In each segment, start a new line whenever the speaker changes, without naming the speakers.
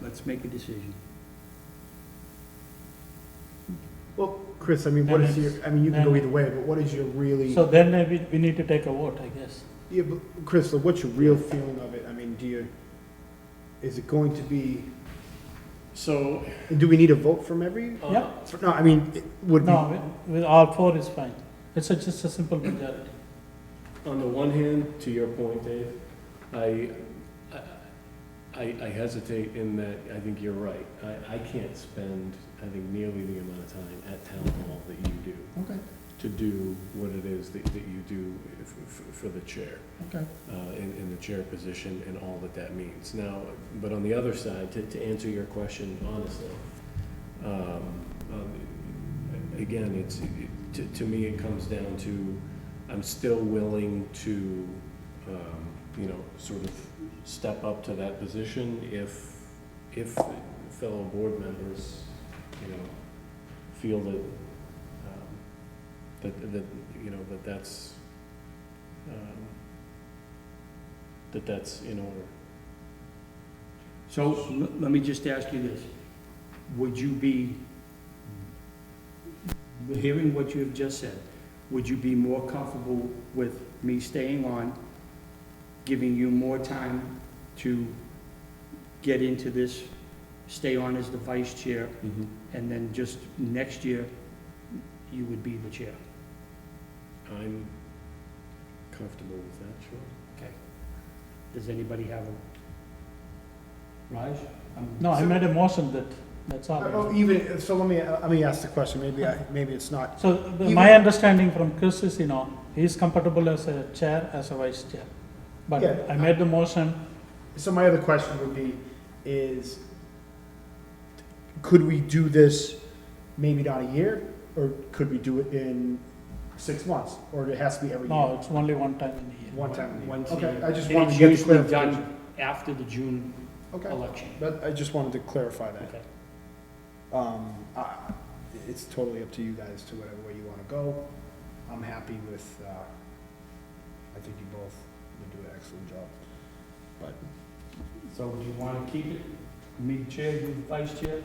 let's make a decision.
Well, Chris, I mean, what is your, I mean, you can go
Then-
either way, but what is your really,
So then maybe we need to take a vote, I guess.
yeah, but Chris, like, what's your real feeling of it? I mean, do you, is it going to be,
So,
do we need a vote from every?
uh,
Yeah.
for- No, I mean, it would be,
No, with- with all four is fine. It's a- just a simple majority.
on the one hand, to your point, Dave, I, I, I hesitate in that I think you're right. I, I can't spend, I think, nearly the amount of time at town hall that you do
Okay,
to do what it is that, that you do f- f- for the chair.
okay.
uh, in, in the chair position and all that that means. Now, but on the other side, to, to answer your question honestly, um, um, again, it's, it- to, to me, it comes down to, I'm still willing to, um, you know, sort of step up to that position if, if fellow board members, you know, feel that, um, that, that, you know, that that's, um, that that's in order.
So l- let me just ask you this. Would you be, hearing what you have just said, would you be more comfortable with me staying on, giving you more time to get into this, stay on as the vice chair,
Mm-hmm.
and then just next year, you would be the chair?
I'm comfortable with that, sure.
Does anybody have a? Raj? I'm-
No, I made a motion that, that's
Oh,
all.
even, so let me, uh, let me ask the question, maybe I, maybe it's not.
So the- my understanding from Chris is, you know, he's comfortable as a chair, as a vice chair. But
Yeah.
I made the motion,
So my other question would be, is, could we do this maybe not a year? Or could we do it in six months, or it has to be every
no,
year?
it's only one time in a year.
One time a year?
Once a
Okay,
year.
I just
And
wanted
it's
to get the
usually
clarification.
done After the June
Okay.
election.
But I just wanted to clarify that.
Okay.
Um, I- It's totally up to you guys to whatever way you want to go. I'm happy with, uh, I think you both would do an excellent job.
So do you want to keep it, me chair, you vice chair?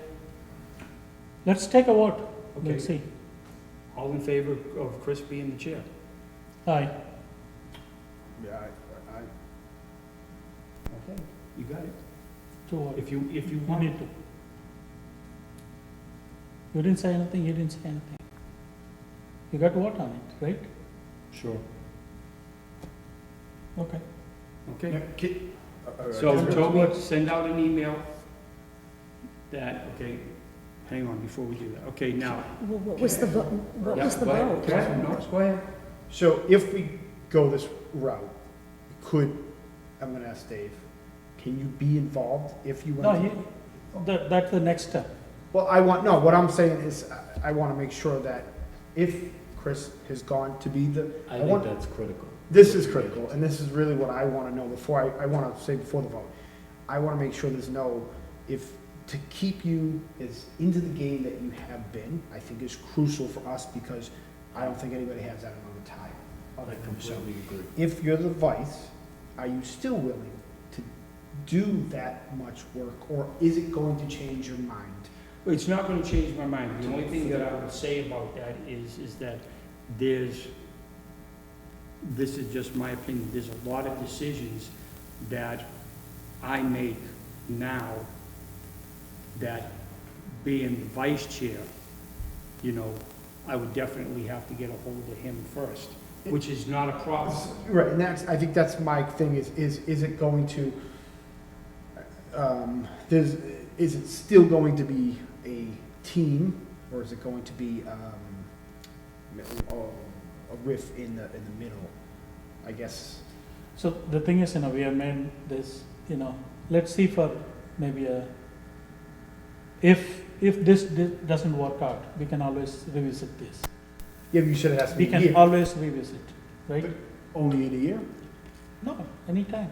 Let's take a vote. Let's
Okay,
see.
all in favor of Chris being the chair?
Aye.
Yeah, I, I,
Okay, you got it.
Two votes.
If you, if you
You
wanted
need to. You didn't say anything, you didn't say anything. You got what on it, right?
Sure.
Okay.
okay?
Ki- uh,
So
Alright.
Toby, send out an email that, okay, hang on before we do that. Okay, now.
Well, What was the, vo- what
Yeah,
was the
go ahead.
vote?
Go ahead, Norris, go ahead.
So if we go this route, could, I'm gonna ask Dave, can you be involved if you
No,
want?
you,
to?
that, that's the next step.
Well, I want, no, what I'm saying is, I- I want to make sure that if Chris has gone to be the, I
I think
want-
that's critical.
This is critical, and this is really what I want to know before, I, I want to say before the vote. I want to make sure there's no, if, to keep you as into the game that you have been, I think is crucial for us because I don't think anybody has that amount of time.
I
other than yourself.
completely agree.
If you're the vice, are you still willing to do that much work, or is it going to change your mind?
It's not gonna change my mind. The only thing that I would say about that is, is that there's, this is just my opinion, there's a lot of decisions that I make now that being the vice chair, you know, I would definitely have to get a hold of him first, which is not a problem.
Right, and that's, I think that's my thing is, is, is it going to, um, there's, is it still going to be a team, or is it going to be, um, mi- oh, a riff in the, in the middle? I guess,
So the thing is, you know, we have made this, you know, let's see for maybe a, if, if this di- doesn't work out, we can always revisit this.
yeah, you said it has to
We
be a
can
year,
always revisit, right?
only in a year?
No, anytime.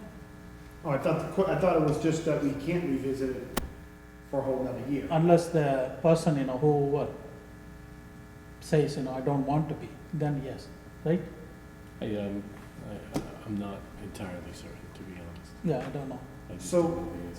Oh, I thought, the que- I thought it was just that we can't revisit it for a whole nother year.
Unless the person, you know, whoever says, you know, I don't want to be, then yes, right?
I, um, I, I'm not entirely certain, to be honest.
Yeah, I don't know.
I just
So-
don't know the answer.